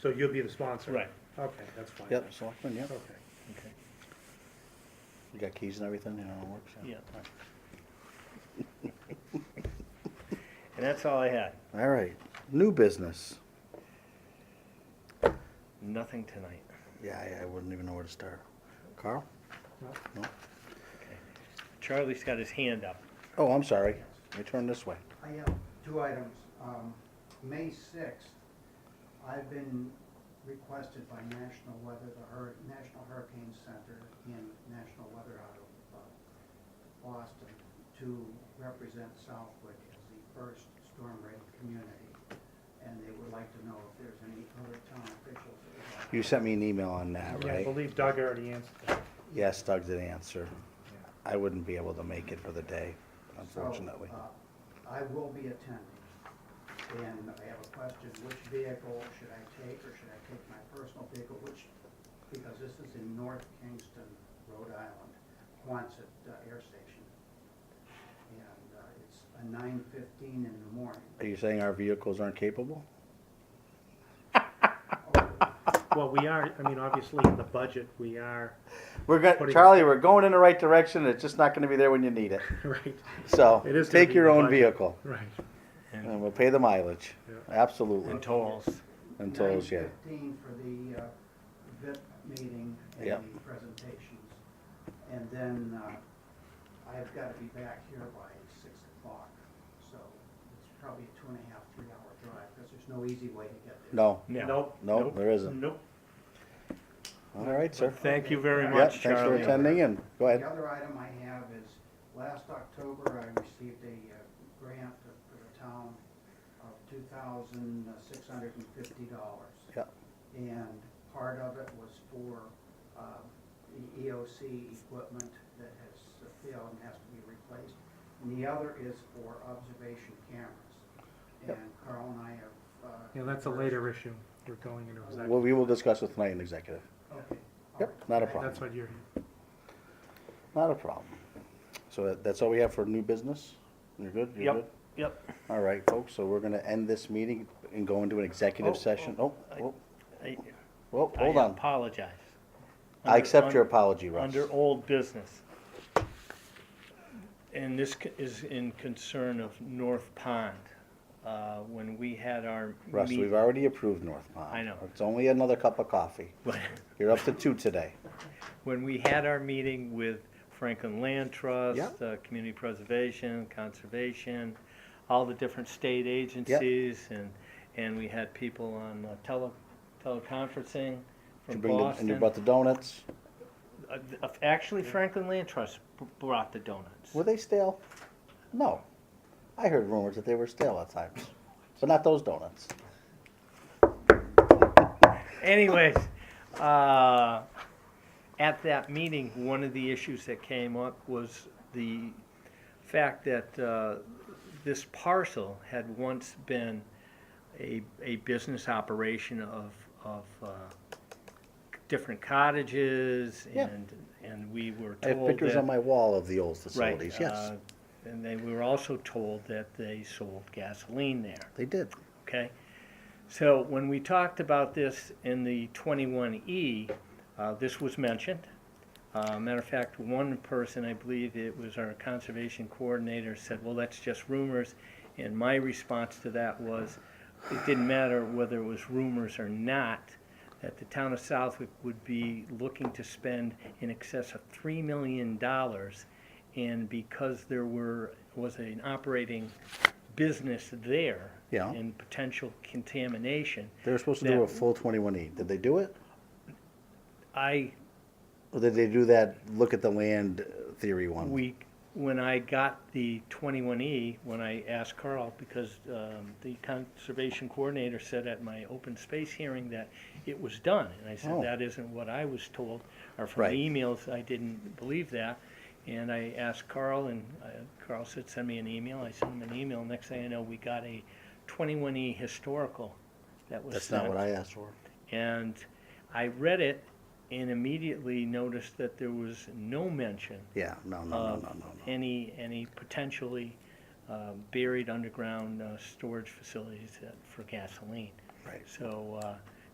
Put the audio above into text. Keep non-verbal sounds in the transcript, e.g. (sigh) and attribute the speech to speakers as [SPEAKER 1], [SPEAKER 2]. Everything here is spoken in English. [SPEAKER 1] So you'll be the sponsor?
[SPEAKER 2] Right.
[SPEAKER 1] Okay, that's fine.
[SPEAKER 3] Yep, selectmen, yep.
[SPEAKER 1] Okay.
[SPEAKER 2] Okay.
[SPEAKER 3] You got keys and everything, you know, it works.
[SPEAKER 2] Yeah. And that's all I had.
[SPEAKER 3] (laughs) All right, new business.
[SPEAKER 2] Nothing tonight.
[SPEAKER 3] Yeah, I- I wouldn't even know where to start. Carl?
[SPEAKER 1] No.
[SPEAKER 3] No?
[SPEAKER 2] Charlie's got his hand up.
[SPEAKER 3] Oh, I'm sorry. I turned this way.
[SPEAKER 4] I have two items. Um, May sixth, I've been requested by National Weather, the Hur- National Hurricane Center and National Weather out of uh, Boston to represent Southwick as the first storm ready community. And they would like to know if there's any other town officials that would like.
[SPEAKER 3] You sent me an email on that,
[SPEAKER 1] Yeah, I
[SPEAKER 3] right?
[SPEAKER 1] believe Doug already answered that.
[SPEAKER 3] Yes, Doug did answer.
[SPEAKER 1] Yeah.
[SPEAKER 3] I wouldn't be able to make it for the day,
[SPEAKER 4] So,
[SPEAKER 3] unfortunately.
[SPEAKER 4] uh, I will be attending, and I have a question, which vehicle should I take, or should I take my personal vehicle, which, because this is in North Kingston, Rhode Island, Quonset uh, Air Station. And uh, it's a nine fifteen in the morning.
[SPEAKER 3] Are you saying our vehicles aren't capable?
[SPEAKER 1] Well, we are, I mean, obviously, in the budget, we are, (laughs)
[SPEAKER 3] We're good,
[SPEAKER 1] Putting-
[SPEAKER 3] Charlie, we're going in the right direction, it's just not gonna be there when you need it.
[SPEAKER 1] right,
[SPEAKER 3] (laughs) So,
[SPEAKER 1] It is gonna
[SPEAKER 3] take
[SPEAKER 1] be
[SPEAKER 3] your
[SPEAKER 1] the
[SPEAKER 3] own
[SPEAKER 1] budget.
[SPEAKER 3] vehicle,
[SPEAKER 1] right.
[SPEAKER 3] and we'll pay the mileage,
[SPEAKER 1] Yeah.
[SPEAKER 3] absolutely,
[SPEAKER 2] And tolls.
[SPEAKER 3] and tolls, yeah.
[SPEAKER 4] Nine fifteen for the uh, VIP meeting
[SPEAKER 3] Yep.
[SPEAKER 4] and the presentations. And then uh, I've got to be back here by six o'clock, so it's probably a two and a half, three-hour drive, because there's no easy way to get there.
[SPEAKER 3] No,
[SPEAKER 2] No.
[SPEAKER 1] Nope.
[SPEAKER 3] no, there isn't.
[SPEAKER 1] Nope.
[SPEAKER 3] All right, sir.
[SPEAKER 2] Thank you very
[SPEAKER 4] Yeah,
[SPEAKER 3] Yeah,
[SPEAKER 2] much,
[SPEAKER 3] thanks for
[SPEAKER 2] Charlie.
[SPEAKER 3] attending, and go
[SPEAKER 4] The
[SPEAKER 3] ahead.
[SPEAKER 4] other item I have is, last October, I received a uh, grant for the town of two thousand six hundred and fifty dollars.
[SPEAKER 3] Yeah.
[SPEAKER 4] And part of it was for um, the EOC equipment that has failed and has to be replaced. And the other is for observation cameras.
[SPEAKER 3] Yep.
[SPEAKER 4] And Carl and I have. uh,
[SPEAKER 1] Yeah, that's a later issue. We're going into
[SPEAKER 3] Well,
[SPEAKER 1] executive.
[SPEAKER 3] we will discuss with tonight in executive.
[SPEAKER 4] Okay. all
[SPEAKER 3] Yep,
[SPEAKER 4] right.
[SPEAKER 3] not a
[SPEAKER 4] Thank-
[SPEAKER 3] problem.
[SPEAKER 1] That's what you're,
[SPEAKER 3] Not a problem. So that- that's all we have for new business? You're good? You're
[SPEAKER 2] Yep.
[SPEAKER 3] good?
[SPEAKER 2] Yep.
[SPEAKER 3] All right, folks, so we're gonna end this meeting and go into an
[SPEAKER 2] Oh,
[SPEAKER 3] executive
[SPEAKER 2] oh,
[SPEAKER 3] session. Oh,
[SPEAKER 2] I-
[SPEAKER 3] whoa,
[SPEAKER 2] I-
[SPEAKER 3] whoa,
[SPEAKER 2] I
[SPEAKER 3] hold on.
[SPEAKER 2] apologize.
[SPEAKER 3] I accept your
[SPEAKER 2] Under-
[SPEAKER 3] apology, Russ.
[SPEAKER 2] Under old business. And this c- is in concern of North Pond. Uh, When we had our.
[SPEAKER 3] Russ,
[SPEAKER 2] meet-
[SPEAKER 3] we've already approved North Pond.
[SPEAKER 2] I know.
[SPEAKER 3] It's only another cup of coffee.
[SPEAKER 2] (laughs)
[SPEAKER 3] You're up to two today.
[SPEAKER 2] when we had our meeting with Franklin Land Trust,
[SPEAKER 3] Yep.
[SPEAKER 2] uh, Community Preservation, Conservation, all the different state agencies, and, and we had people on uh, tele, teleconferencing
[SPEAKER 3] Did you
[SPEAKER 2] (laughs) from
[SPEAKER 3] bring the- And you
[SPEAKER 2] Boston.
[SPEAKER 3] brought the donuts.
[SPEAKER 2] Uh, uh, Actually, Franklin Land Trust b- brought the donuts.
[SPEAKER 3] Were they stale? No. I heard rumors that they were stale at times, but not those donuts.
[SPEAKER 2] Anyways, uh, at that meeting, one of the issues that came up was the fact that uh, this parcel had once been a, a business operation of, of uh, different cottages
[SPEAKER 3] Yeah.
[SPEAKER 2] and, and we were
[SPEAKER 3] I
[SPEAKER 2] told
[SPEAKER 3] have pictures
[SPEAKER 2] that-
[SPEAKER 3] on my wall of the old
[SPEAKER 2] Right,
[SPEAKER 3] facilities, yes.
[SPEAKER 2] uh, And they were also told that they sold gasoline there
[SPEAKER 3] They did.
[SPEAKER 2] okay? So when we talked about this in the twenty-one E, uh, this was mentioned. Uh, matter of fact, one person, I believe it was our conservation coordinator, said, well, that's just rumors. And my response to that was, it didn't matter whether it was rumors or not, that the town of Southwick would be looking to spend in excess of three million dollars. And because there were, was an operating business there.
[SPEAKER 3] Yeah.
[SPEAKER 2] And potential contamination,
[SPEAKER 3] They were supposed to do a
[SPEAKER 2] That-
[SPEAKER 3] full twenty-one E. Did they do it?
[SPEAKER 2] I
[SPEAKER 3] Or did they do that look at the land uh, theory one?
[SPEAKER 2] We, when I got the twenty-one E, when I asked Carl, because um, the conservation coordinator said at my open space hearing that it was done. And I
[SPEAKER 3] Oh.
[SPEAKER 2] said, that isn't what I was told, or from
[SPEAKER 3] Right.
[SPEAKER 2] the emails, I didn't believe that. And I asked Carl, and uh, Carl said, send me an email. I sent him an email. Next thing I know, we got a twenty-one E historical that was
[SPEAKER 3] That's
[SPEAKER 2] sent.
[SPEAKER 3] not what I asked for.
[SPEAKER 2] And I read it and immediately noticed that there was no mention
[SPEAKER 3] Yeah, no, no, no,
[SPEAKER 2] of
[SPEAKER 3] no, no, no.
[SPEAKER 2] uh, any, any potentially uh, buried underground uh, storage facilities that- for gasoline.
[SPEAKER 3] Right.
[SPEAKER 2] So uh,